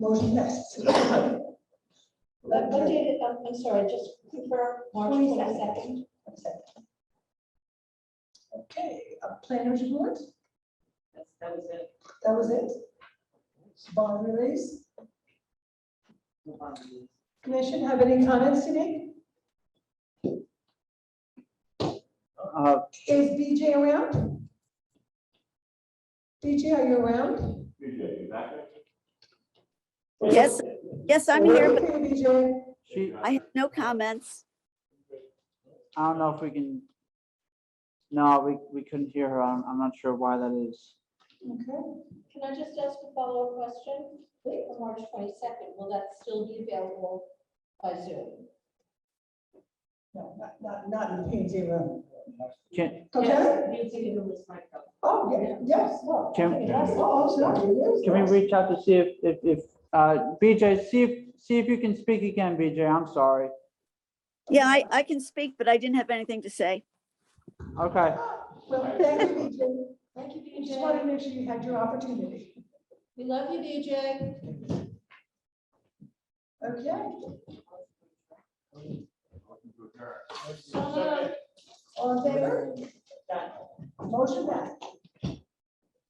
Motion passes. What, what date, it- I'm, I'm sorry, just confirm, March twenty-second? Okay, uh, planners report, That's, that was it. that was it. Bond release, Move on to the- commission, have any comments today? Uh, Is BJ around? BJ, are you around? Appreciate you back there. Yes, yes, I'm here, but Okay, BJ, She, I have no comments. I don't know if we can. No, we, we couldn't hear her. I'm, I'm not sure why that is. okay, Can I just ask a follow-up question? For March twenty-second, will that still be available by Zoom? no, not, not, not in the PNG room, Can, okay? Yes, You can release my phone. Oh, yeah, yes, well, Can- that's all, so it is. can we reach out to see if, if, if, uh, BJ, see if, see if you can speak again, BJ. I'm sorry. Yeah, I, I can speak, but I didn't have anything to say. Okay. Well, thank you, BJ, Thank you, I just wanted to BJ. make sure you had your opportunity. We love you, BJ. Okay, So, all in favor? Done. Motion passed.